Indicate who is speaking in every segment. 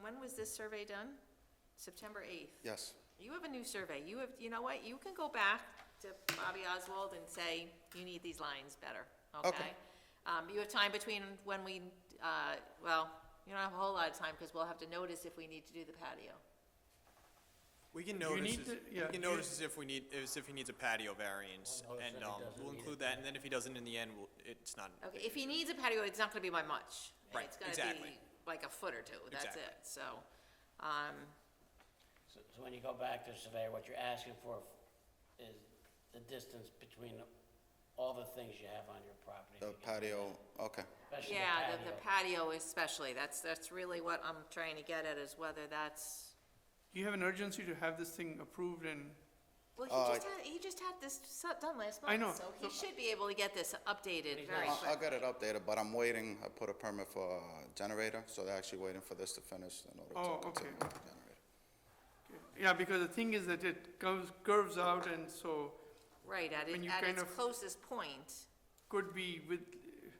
Speaker 1: when was this survey done? September 8th.
Speaker 2: Yes.
Speaker 1: You have a new survey. You have, you know what? You can go back to Bobby Oswald and say, you need these lines better, okay? Um, you have time between when we, uh, well, you don't have a whole lot of time because we'll have to notice if we need to do the patio.
Speaker 3: We can notice,
Speaker 4: need
Speaker 3: as-
Speaker 4: to-
Speaker 3: we
Speaker 4: yeah,
Speaker 3: can
Speaker 4: you-
Speaker 3: notice as if we need, as if he needs a patio variance, and, um, we'll include that, and then if he doesn't in the end, we'll, it's not. a
Speaker 1: Okay,
Speaker 3: big
Speaker 1: if he
Speaker 3: issue.
Speaker 1: needs a patio, it's not gonna be by much.
Speaker 3: Right,
Speaker 1: It's gonna
Speaker 3: exactly.
Speaker 1: be Like a foot or two, that's
Speaker 3: Exactly.
Speaker 1: it, so, um,
Speaker 5: So so when you go back to the surveyor, what you're asking for is the distance between all the things you have on your property.
Speaker 2: The patio, okay.
Speaker 5: Especially the
Speaker 1: yeah, the, the
Speaker 5: patio.
Speaker 1: patio especially, that's, that's really what I'm trying to get at, is whether that's,
Speaker 4: You have an urgency to have this thing approved and,
Speaker 1: well,
Speaker 2: Uh,
Speaker 1: he just had, he just had this su- done last
Speaker 4: I know, Uh,
Speaker 1: month, so he
Speaker 4: so-
Speaker 1: should be able to get this updated very
Speaker 2: I'll, I'll
Speaker 1: quick.
Speaker 2: get it updated, but I'm waiting, I put a permit for a generator, so they're actually waiting for this to finish in order
Speaker 4: Oh,
Speaker 2: to continue
Speaker 4: okay.
Speaker 2: with the generator.
Speaker 4: yeah, because the thing is that it curves, curves out and so
Speaker 1: Right, at
Speaker 4: When
Speaker 1: it,
Speaker 4: you
Speaker 1: at
Speaker 4: kind
Speaker 1: its
Speaker 4: of-
Speaker 1: closest point,
Speaker 4: could be with eh,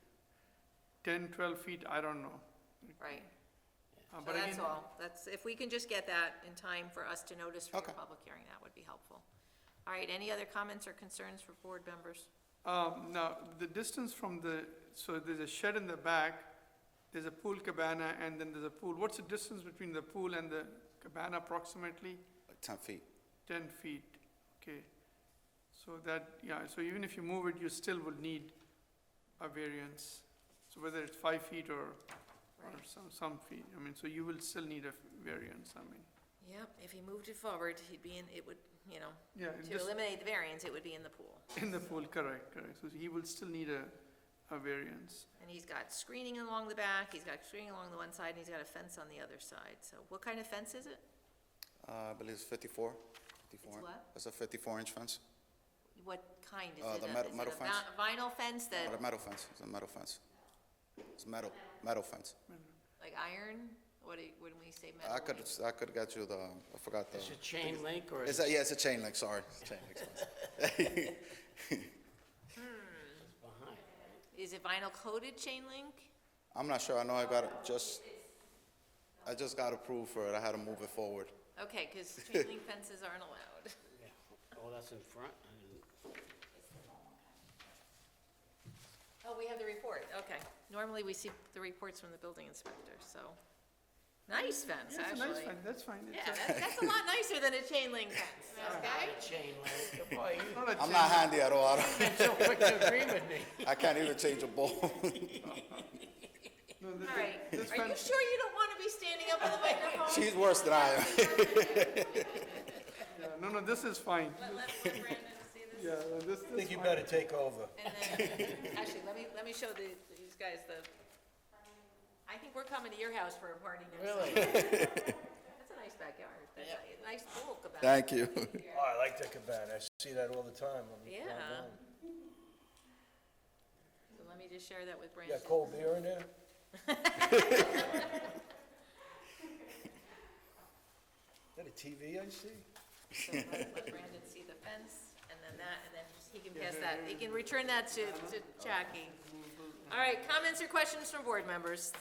Speaker 4: ten, twelve feet, I don't know.
Speaker 1: right,
Speaker 4: Uh,
Speaker 1: so
Speaker 4: but
Speaker 1: that's
Speaker 4: again,
Speaker 1: all, that's, if we can just get that in time for us to notice for your
Speaker 2: Okay.
Speaker 1: public hearing, that would be helpful. All right, any other comments or concerns for board members?
Speaker 4: Um, now, the distance from the, so there's a shed in the back, there's a pool cabana, and then there's a pool. What's the distance between the pool and the cabana approximately?
Speaker 2: Like ten feet.
Speaker 4: Ten feet, okay. So that, yeah, so even if you move it, you still would need a variance. So whether it's five feet or, or
Speaker 1: Right.
Speaker 4: some, some feet, I mean, so you will still need a variance, I mean.
Speaker 1: Yep, if he moved it forward, he'd be in, it would, you know,
Speaker 4: Yeah, it
Speaker 1: to
Speaker 4: just
Speaker 1: eliminate the variance, it would be in the pool.
Speaker 4: in the pool, correct, correct. So he will still need a, a variance.
Speaker 1: And he's got screening along the back, he's got screening along the one side, and he's got a fence on the other side. So what kind of fence is it?
Speaker 2: Uh, I believe it's 54. 54.
Speaker 1: what?
Speaker 2: It's a fifty-four inch fence,
Speaker 1: What kind is it?
Speaker 2: Uh, the
Speaker 1: A-
Speaker 2: metal-
Speaker 1: is it
Speaker 2: metal
Speaker 1: a
Speaker 2: fence.
Speaker 1: vi- Vinyl fence that,
Speaker 2: not a metal fence, it's a metal fence. It's metal, metal fence.
Speaker 1: like iron? What do, you- when we say metal?
Speaker 2: I could,
Speaker 1: like-
Speaker 2: I could get you the, I forgot the.
Speaker 5: Is it chain link or
Speaker 2: It's
Speaker 5: is
Speaker 2: a,
Speaker 5: it
Speaker 2: yeah, it's a chain link, sorry. It's a chain link fence.
Speaker 5: behind?
Speaker 1: Is it vinyl coated chain link?
Speaker 2: I'm not sure, I know I got it, just, I just got approved for it, I had to move it forward.
Speaker 1: Okay, because chain link fences aren't allowed.
Speaker 5: Yeah. Oh, that's in front? I didn't-
Speaker 1: Oh, we have the report, okay. Normally, we see the reports from the building inspector, so. Nice fence,
Speaker 4: Yeah, it's a nice
Speaker 1: actually.
Speaker 4: fence, that's fine. It's
Speaker 1: Yeah,
Speaker 4: a-
Speaker 1: that's, that's a lot nicer than a chain link fence, okay?
Speaker 5: Chain link, boy,
Speaker 4: it's
Speaker 5: you've
Speaker 4: not a
Speaker 2: I'm
Speaker 4: chain
Speaker 2: not
Speaker 4: link.
Speaker 2: handy at all, I don't-
Speaker 5: been so quick to agree with me.
Speaker 2: I can't even change a ball.
Speaker 4: No, this-
Speaker 1: All right,
Speaker 4: this
Speaker 1: are you
Speaker 4: fence-
Speaker 1: sure you don't want to be standing up on the microphone?
Speaker 2: She's worse than I am.
Speaker 4: yeah, No, no, this is fine.
Speaker 1: Let, let let Brandon see
Speaker 4: Yeah,
Speaker 1: this.
Speaker 4: no, this, this fine.
Speaker 5: take over.
Speaker 1: And then, actually, let me, let me show the, these guys the, I think we're coming to your house for a party next time.
Speaker 5: Really?
Speaker 1: That's a nice backyard, that's a nice pool cabana.
Speaker 2: Thank you.
Speaker 6: Oh, I like that cabana. I see that all the time. when we drive
Speaker 1: Yeah.
Speaker 6: down.
Speaker 1: So let me just share that with
Speaker 6: You
Speaker 1: Brandon.
Speaker 6: got cold beer in there? Is that a TV I see?
Speaker 1: So let let Brandon see the fence, and then that, and then he can pass that, he can return that to, to Jackie. All right, comments or questions from board members?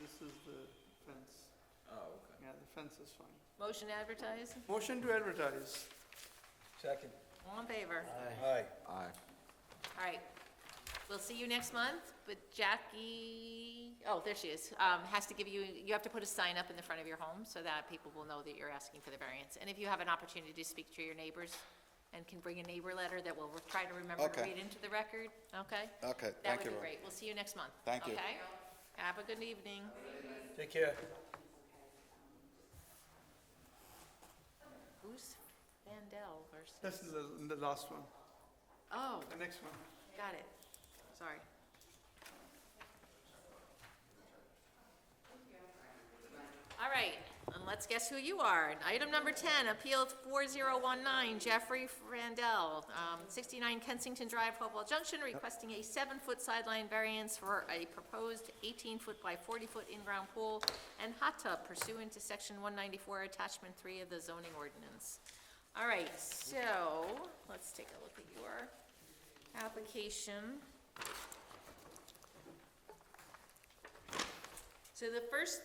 Speaker 4: This is the fence. Oh, okay. Yeah, the fence is fine.
Speaker 1: Motion advertised,
Speaker 4: Motion to advertise.
Speaker 6: Second.
Speaker 1: all in favor?
Speaker 6: Aye.
Speaker 1: All right, we'll see you next month, but Jackie, oh, there she is, um, has to give you, you have to put a sign up in the front of your home so that people will know that you're asking for the variance. And if you have an opportunity to speak to your neighbors and can bring a neighbor letter that we'll try to remember to
Speaker 2: Okay.
Speaker 1: read into the record, okay?
Speaker 2: Okay,
Speaker 1: That
Speaker 2: thank
Speaker 1: would
Speaker 2: you.
Speaker 1: be
Speaker 2: Ron.
Speaker 1: great. We'll see you next month.
Speaker 2: Thank you.
Speaker 1: Okay? Have a good evening.
Speaker 6: Take care.
Speaker 1: Who's Vandell versus,
Speaker 4: This is the, the last one,
Speaker 1: oh,
Speaker 4: the next one.
Speaker 1: got it. Sorry. All right, and let's guess who you are. Item number 10, Appeal 4019, Jeffrey Vandell, um, 69 Kensington Drive, Hopewell Junction, requesting a seven-foot sideline variance for a proposed 18-foot by 40-foot in-ground pool and hot tub pursuant to Section 194, Attachment 3 of the zoning ordinance. All right, so, let's take a look at your application. So the first